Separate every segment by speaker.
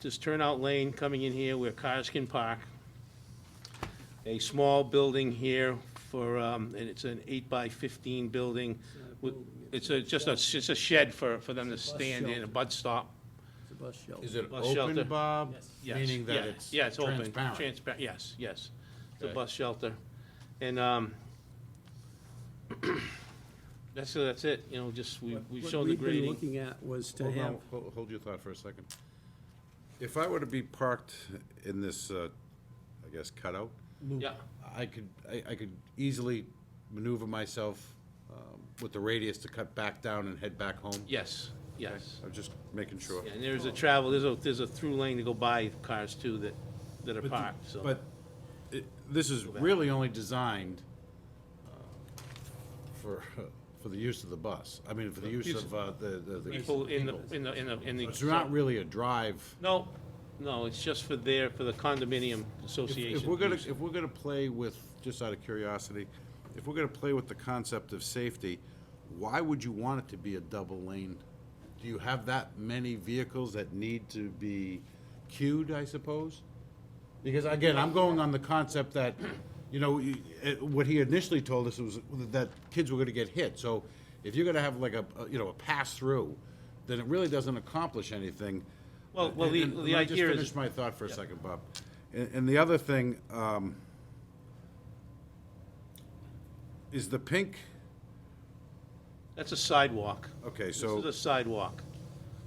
Speaker 1: this turnout lane coming in here where cars can park. A small building here for, um, and it's an eight by fifteen building. with- It's a, just a, it's just a shed for, for them to
Speaker 2: Bus
Speaker 1: stand in, a
Speaker 2: shelter.
Speaker 1: bus stop.
Speaker 2: It's a bus shelter.
Speaker 3: Is it
Speaker 1: Bus shelter.
Speaker 3: open, Bob?
Speaker 1: Yes,
Speaker 3: Meaning
Speaker 1: yeah,
Speaker 3: that it's
Speaker 1: yeah, it's open,
Speaker 3: transparent?
Speaker 1: transpa- yes, yes. It's a
Speaker 3: Okay.
Speaker 1: bus shelter. And, um, that's, that's it, you know, just, we,
Speaker 2: What-
Speaker 1: we've shown the
Speaker 2: What
Speaker 1: grading. Oh,
Speaker 2: we've been looking at was to
Speaker 3: Hold
Speaker 2: have,
Speaker 3: on, hol- hold your thought for a second. If I were to be parked in this, uh, I guess cutout,
Speaker 1: Yeah,
Speaker 3: I could, I, I could easily maneuver myself um, with the radius to cut back down and head back home?
Speaker 1: yes, yes.
Speaker 3: I'm just making sure.
Speaker 1: Yeah, And there's a travel, there's a, there's a through lane to go by cars too that, that are
Speaker 3: But the-
Speaker 1: parked, so.
Speaker 3: But it- this is really only designed uh, for, for the use of the bus. I mean, for the use
Speaker 1: Use-
Speaker 3: of uh, the, the- the.
Speaker 1: People in the, in the, in the, in the.
Speaker 3: It's not really a drive.
Speaker 1: No, no, it's just for their, for the condominium
Speaker 3: If-
Speaker 1: association.
Speaker 3: If we're gonna,
Speaker 1: use.
Speaker 3: if we're gonna play with, just out of curiosity, if we're gonna play with the concept of safety, why would you want it to be a double lane? Do you have that many vehicles that need to be queued, I suppose? Because again, I'm going on the concept that, you know, you- it- what he initially told us was that kids were gonna get hit. So if you're gonna have like a, a, you know, a pass-through, then it really doesn't accomplish anything.
Speaker 1: Well- well, the-
Speaker 3: And- and
Speaker 1: the
Speaker 3: let me just
Speaker 1: idea is-
Speaker 3: finish my thought for a second, Bob. And, and the other thing, um, is the pink,
Speaker 1: That's a sidewalk.
Speaker 3: okay,
Speaker 1: This
Speaker 3: so
Speaker 1: is a sidewalk.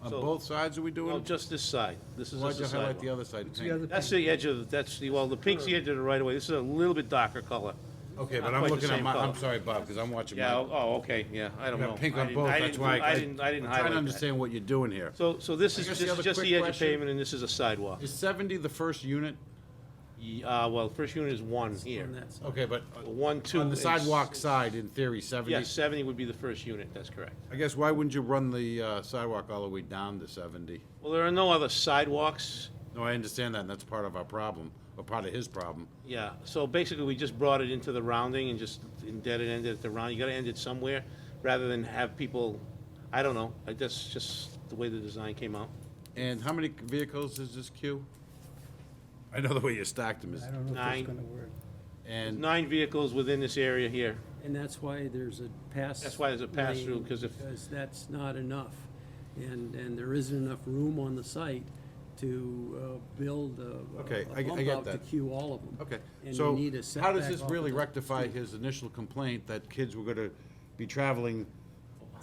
Speaker 3: on
Speaker 1: so-
Speaker 3: both sides are we
Speaker 1: No,
Speaker 3: doing?
Speaker 1: just this side. This is
Speaker 3: Why'd
Speaker 1: just
Speaker 3: you
Speaker 1: a
Speaker 3: highlight the
Speaker 1: sidewalk.
Speaker 3: other side
Speaker 2: the
Speaker 3: pink?
Speaker 2: other-
Speaker 1: That's the edge of, the- that's the, well, the pink's the edge of the right of way. This is a little bit darker color.
Speaker 3: Okay,
Speaker 1: Not
Speaker 3: but I'm
Speaker 1: quite the
Speaker 3: looking at
Speaker 1: same
Speaker 3: my,
Speaker 1: color.
Speaker 3: I'm sorry, Bob, because I'm watching
Speaker 1: Yeah,
Speaker 3: my,
Speaker 1: oh, oh, okay, yeah, I don't
Speaker 3: Yeah,
Speaker 1: know.
Speaker 3: pink
Speaker 1: I
Speaker 3: on
Speaker 1: didn't-
Speaker 3: both,
Speaker 1: I
Speaker 3: that's
Speaker 1: didn't-
Speaker 3: why I-
Speaker 1: I didn't, I didn't
Speaker 3: I'm trying to
Speaker 1: highlight that.
Speaker 3: understand what you're doing here.
Speaker 1: So, so this is
Speaker 3: guess the
Speaker 1: just,
Speaker 3: other
Speaker 1: just
Speaker 3: quick
Speaker 1: the edge of
Speaker 3: question-
Speaker 1: pavement and this is a sidewalk.
Speaker 3: Is seventy the first unit?
Speaker 1: Ye- Uh, well, first unit is one here.
Speaker 2: on that side.
Speaker 3: Okay, but uh,
Speaker 1: One, two.
Speaker 3: on
Speaker 1: and
Speaker 3: the
Speaker 1: s-
Speaker 3: sidewalk side, in theory,
Speaker 1: Yeah,
Speaker 3: seventy?
Speaker 1: seventy would be the first unit, that's correct.
Speaker 3: I guess why wouldn't you run the uh, sidewalk all the way down to seventy?
Speaker 1: Well, there are no other sidewalks,
Speaker 3: No, I understand that, and that's part of our problem, or part of his problem.
Speaker 1: yeah. So basically, we just brought it into the rounding and just indebted ended at the round. You gotta end it somewhere, rather than have people, I don't know, I- that's just the way the design came out.
Speaker 3: And how many vehicles is this queue? I know the way you stacked them is,
Speaker 2: I don't know if
Speaker 1: Nine.
Speaker 2: it's gonna work.
Speaker 3: and,
Speaker 1: Nine vehicles within this area here.
Speaker 2: And that's why there's a pass.
Speaker 1: That's why there's a pass-through,
Speaker 2: lane,
Speaker 1: 'cause if-
Speaker 2: Because that's not enough. And, and there isn't enough room on the site to uh, build a.
Speaker 3: Okay,
Speaker 2: a
Speaker 3: I- I
Speaker 2: bump
Speaker 3: get
Speaker 2: out To
Speaker 3: that.
Speaker 2: queue all of them.
Speaker 3: okay.
Speaker 2: And you
Speaker 3: So,
Speaker 2: need a
Speaker 3: how does
Speaker 2: setback
Speaker 3: this
Speaker 2: off
Speaker 3: really
Speaker 2: the-
Speaker 3: rectify his initial complaint that kids were gonna be traveling uh,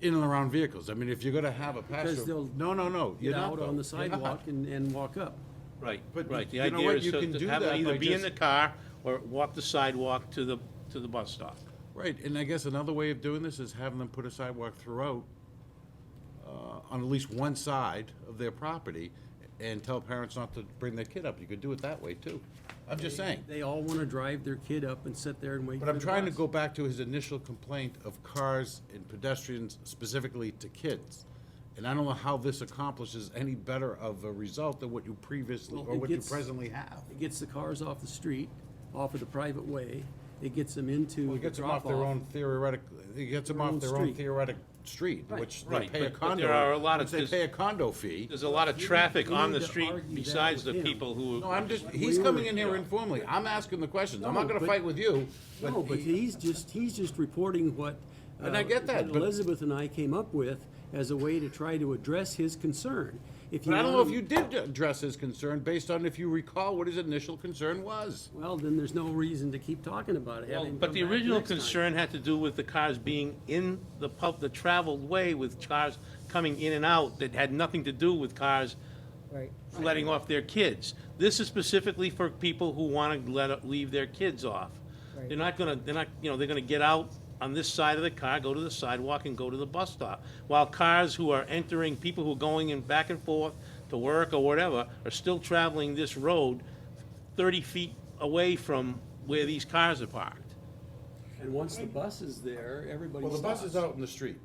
Speaker 3: in and around vehicles? I mean, if you're gonna have a pass
Speaker 2: they'll
Speaker 3: through, no, no, no, you're
Speaker 2: Get
Speaker 3: not,
Speaker 2: out
Speaker 3: though.
Speaker 2: on the
Speaker 3: You're not.
Speaker 2: sidewalk and, and walk up.
Speaker 1: Right,
Speaker 3: But
Speaker 1: right. The
Speaker 3: you know
Speaker 1: idea
Speaker 3: what?
Speaker 1: is
Speaker 3: You
Speaker 1: so
Speaker 3: can
Speaker 1: to
Speaker 3: do
Speaker 1: have them
Speaker 3: that
Speaker 1: either
Speaker 3: by
Speaker 1: be in
Speaker 3: just-
Speaker 1: the car or walk the sidewalk to the, to the bus stop.
Speaker 3: Right, and I guess another way of doing this is having them put a sidewalk throughout uh, on at least one side of their property and tell parents not to bring their kid up. You could do it that way, too. I'm just saying.
Speaker 2: They all wanna drive their kid up and sit there and wait.
Speaker 3: But
Speaker 2: for
Speaker 3: I'm
Speaker 2: the
Speaker 3: trying to
Speaker 2: bus.
Speaker 3: go back to his initial complaint of cars and pedestrians specifically to kids. And I don't know how this accomplishes any better of a result than what you previously,
Speaker 2: Well,
Speaker 3: or
Speaker 2: it
Speaker 3: what you
Speaker 2: gets-
Speaker 3: presently have.
Speaker 2: It gets the cars off the street, off of the private way. It gets them into
Speaker 3: Well, it
Speaker 2: the
Speaker 3: gets them off their
Speaker 2: drop-off.
Speaker 3: own theoretic, it gets them
Speaker 2: Their
Speaker 3: off
Speaker 2: own
Speaker 3: their own
Speaker 2: street.
Speaker 3: theoretic street, which they
Speaker 1: Right,
Speaker 3: pay a
Speaker 1: but- but
Speaker 3: condo.
Speaker 1: there are a lot of-
Speaker 3: which They pay a condo fee.
Speaker 1: There's a lot of traffic
Speaker 2: you
Speaker 1: on
Speaker 2: need
Speaker 1: the
Speaker 2: to
Speaker 1: street
Speaker 2: argue that
Speaker 1: besides the
Speaker 2: with him.
Speaker 1: people who.
Speaker 3: No, I'm just, he's
Speaker 2: we
Speaker 3: coming
Speaker 2: were-
Speaker 3: in here informally. I'm asking the questions. I'm not
Speaker 2: No,
Speaker 3: gonna
Speaker 2: but-
Speaker 3: fight with you.
Speaker 2: No, but he's just, he's just reporting what.
Speaker 3: And I
Speaker 2: uh,
Speaker 3: get that,
Speaker 2: what
Speaker 3: but-
Speaker 2: Elizabeth and I came up with as a way to try to address his concern. If you
Speaker 3: But I don't know if
Speaker 2: want-
Speaker 3: you did address his concern based on if you recall what his initial concern was.
Speaker 2: Well, then there's no reason to keep talking about it. Have
Speaker 1: Well,
Speaker 2: him
Speaker 1: But
Speaker 2: come
Speaker 1: the
Speaker 2: back
Speaker 1: original
Speaker 2: next time.
Speaker 1: concern had to do with the cars being in the pub, the traveled way with cars coming in and out that had nothing to do with cars
Speaker 4: Right.
Speaker 1: letting off their kids. This is specifically for people who want to let, leave their kids off. They're
Speaker 4: Right.
Speaker 1: not gonna, they're not, you know, they're gonna get out on this side of the car, go to the sidewalk and go to the bus stop. While cars who are entering, people who are going in back and forth to work or whatever, are still traveling this road thirty feet away from where these cars are parked.
Speaker 2: And once the bus is there, everybody
Speaker 3: Well,
Speaker 2: stops.
Speaker 3: the bus is out in the street.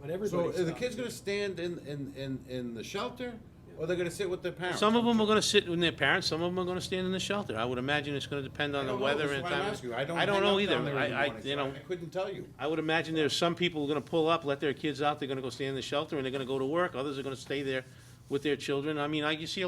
Speaker 2: But everybody
Speaker 3: So
Speaker 2: stops.
Speaker 3: are the kids gonna stand in, in, in, in the shelter or they're gonna sit with their parents?
Speaker 1: Some of them are gonna sit with their parents, some of them are gonna stand in the shelter. I would imagine it's gonna depend on
Speaker 3: I
Speaker 1: the
Speaker 3: don't know,
Speaker 1: weather
Speaker 3: that's
Speaker 1: and
Speaker 3: why
Speaker 1: time.
Speaker 3: I'm asking you. I don't
Speaker 1: I don't
Speaker 3: hang
Speaker 1: know
Speaker 3: out
Speaker 1: either.
Speaker 3: down there in
Speaker 1: I,
Speaker 3: the
Speaker 1: I,
Speaker 3: morning, so
Speaker 1: you know.
Speaker 3: I couldn't tell you.
Speaker 1: I would imagine there's some people who are gonna pull up, let their kids out, they're gonna go stay in the shelter, and they're gonna go to work, others are gonna stay there with their children, I mean, I, you see a